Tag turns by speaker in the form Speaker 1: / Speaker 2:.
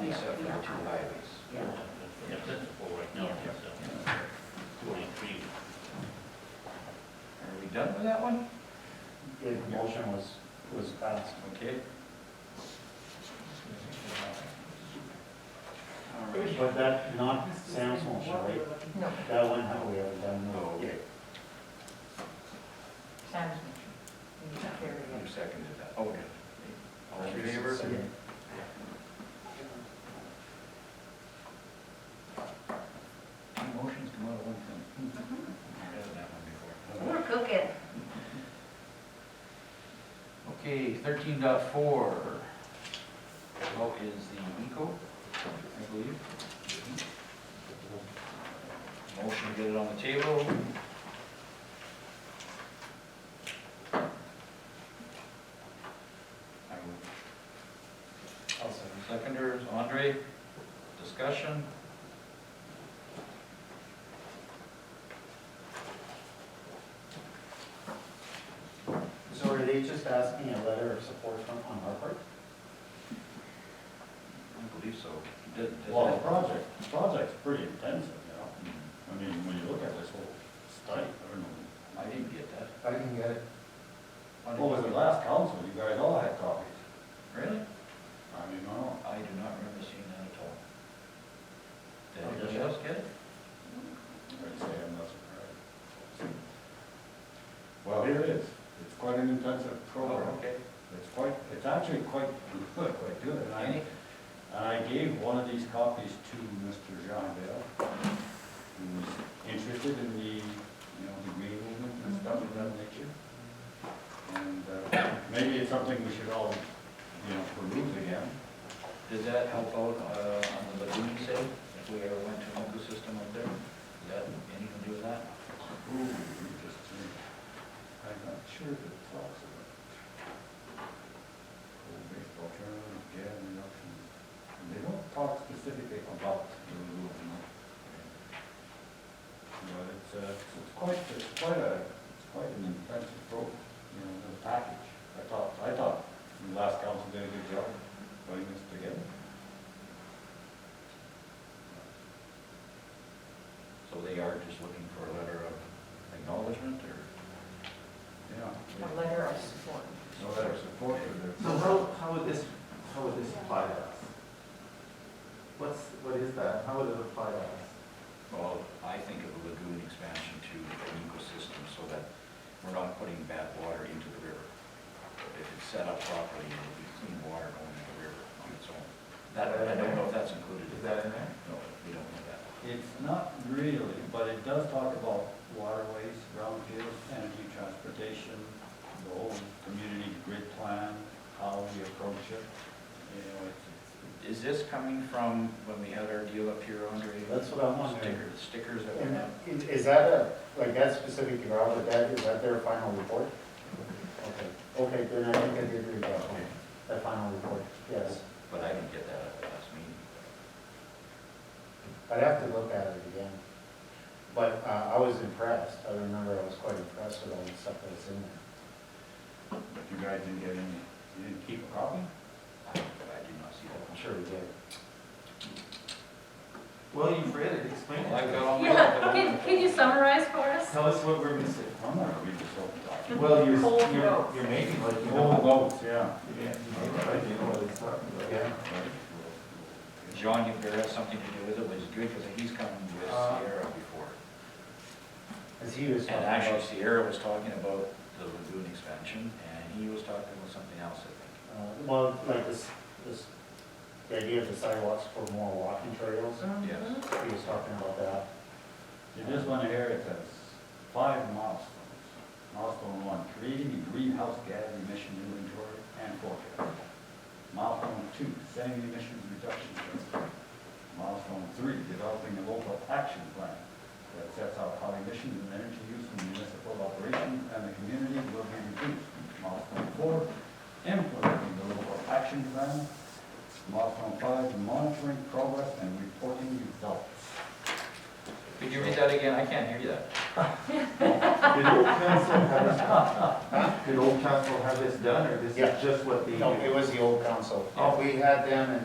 Speaker 1: two highways.
Speaker 2: Yeah.
Speaker 3: Yeah, that's the four right now,
Speaker 2: Yeah.
Speaker 3: so
Speaker 1: Are
Speaker 3: forty-three.
Speaker 1: we done with that one?
Speaker 4: The motion was, was passed.
Speaker 1: Okay. All right.
Speaker 4: But that, not Sam's motion, right?
Speaker 2: No,
Speaker 4: That one, how we have done,
Speaker 1: Oh,
Speaker 4: no.
Speaker 1: okay.
Speaker 2: Sam's motion. You can carry
Speaker 1: You
Speaker 2: it.
Speaker 1: seconded that. Okay. All in favor?
Speaker 4: Second.
Speaker 1: Motions come out of one thing. Done that one before.
Speaker 2: We're cooking.
Speaker 1: Okay, thirteen Well, is the Nico, I believe. Motion to get it on the table. I would
Speaker 4: I'll second.
Speaker 1: Seconders, Andre, discussion?
Speaker 4: So are they just asking a letter of support from, on our part?
Speaker 1: I believe so. Did- did Hmm,
Speaker 5: Well, the
Speaker 1: that-
Speaker 5: project, the project's pretty intensive, you know, I mean, when you look at this whole study, I don't know.
Speaker 1: I didn't get that.
Speaker 5: I didn't get it.
Speaker 1: I didn't-
Speaker 5: Well, with the last council, you guys all had copies.
Speaker 1: Really?
Speaker 5: I mean, I don't know.
Speaker 1: I do not remember seeing that at all. Did
Speaker 5: Oh,
Speaker 1: anybody
Speaker 5: yeah.
Speaker 1: else get it?
Speaker 5: I'd say I'm not surprised. Well, here it is, it's quite an intensive program,
Speaker 1: Oh, okay.
Speaker 5: it's quite, it's actually quite good, quite good, and I,
Speaker 1: Any?
Speaker 5: and I gave one of these copies to Mr. John Bell, who was interested in the, you know, the green movement and stuff of that nature. And, uh, maybe it's something we should all, you know, peruse again.
Speaker 1: Did that help out uh, on the lagoon sale, if we ever went to an ecosystem up there? Did that, anything to do with that?
Speaker 5: Ooh, interesting. I'm not sure if it talks about. Old baseball tournament, yeah, reduction. And They don't talk specifically about the rule, you know. But it's, uh, it's quite, it's quite a, it's quite an intensive pro, you know, the package. I thought, I thought the last council did a good job putting this together.
Speaker 1: So they are just looking for a letter of acknowledgement or?
Speaker 5: Yeah,
Speaker 2: A letter of support.
Speaker 5: no letter of support for their.
Speaker 6: So how, how would this, how would this apply to us? What's, what is that? How would it apply to us?
Speaker 1: Well, I think of a lagoon expansion to an ecosystem so that we're not putting bad water into the river. If it's set up properly, it'll be clean water going into the river on its own. That, I don't know if that's included.
Speaker 6: Is that in there?
Speaker 1: No, we don't know that.
Speaker 5: It's not really, but it does talk about waterways, brownfields, energy, transportation, the whole community grid plan, how we approach it. You know, it's,
Speaker 1: Is this coming from when we had our deal up here, Andre?
Speaker 4: That's what I'm wondering.
Speaker 1: Stickers, stickers that went
Speaker 4: And
Speaker 1: out?
Speaker 4: is- is that a, like, that's specific to Robert, that, is that their final report? Okay, okay, then I think I did read that one, that final report, yes.
Speaker 1: But I didn't get that at the last meeting.
Speaker 4: I'd have to look at it again. But uh, I was impressed, I remember I was quite impressed with all the stuff that was in there.
Speaker 5: but you guys didn't get any, you didn't keep a copy?
Speaker 1: I I did not see that.
Speaker 4: I'm sure we did.
Speaker 6: Well, you've read it, explain
Speaker 1: Well, I've
Speaker 6: it.
Speaker 1: got all my-
Speaker 7: Yeah, can, can you summarize for us?
Speaker 6: Tell us what we're missing.
Speaker 5: I'm not reading this open document.
Speaker 6: Well, you're,
Speaker 7: Cold
Speaker 6: you're,
Speaker 7: notes.
Speaker 6: you're making like, you
Speaker 5: Whole
Speaker 6: know.
Speaker 5: votes, yeah.
Speaker 6: Yeah, you make like you know what it's talking about.
Speaker 4: Oh, Yeah.
Speaker 1: John, if there has something to do with it, which is good, because he's come with
Speaker 6: Uh,
Speaker 1: Sierra before.
Speaker 4: As he was
Speaker 1: And
Speaker 4: talking
Speaker 1: actually
Speaker 4: about.
Speaker 1: Sierra was talking about the lagoon expansion, and he was talking about something else, I think.
Speaker 4: uh, Well, like this, this, the idea of the sidewalks for more walking trails,
Speaker 7: Uh-huh.
Speaker 1: Yes.
Speaker 4: he was talking about that.
Speaker 5: In this one here, it says five milestones. Milestone one, creating a greenhouse gas emission inventory and forecast. Milestone two, setting emissions reduction targets. Milestone three, developing a local action plan that sets out how emissions and energy use in municipal operations and the community will be reduced. Milestone four, implementing the local action plan. Milestone five, monitoring progress and reporting results.
Speaker 1: Could you read that again? I can't hear that.
Speaker 6: Did old council have this, huh? did old council have this done, or this
Speaker 4: Yeah.
Speaker 6: is just what the?
Speaker 1: Oh.
Speaker 4: No, it was the old council. We had them and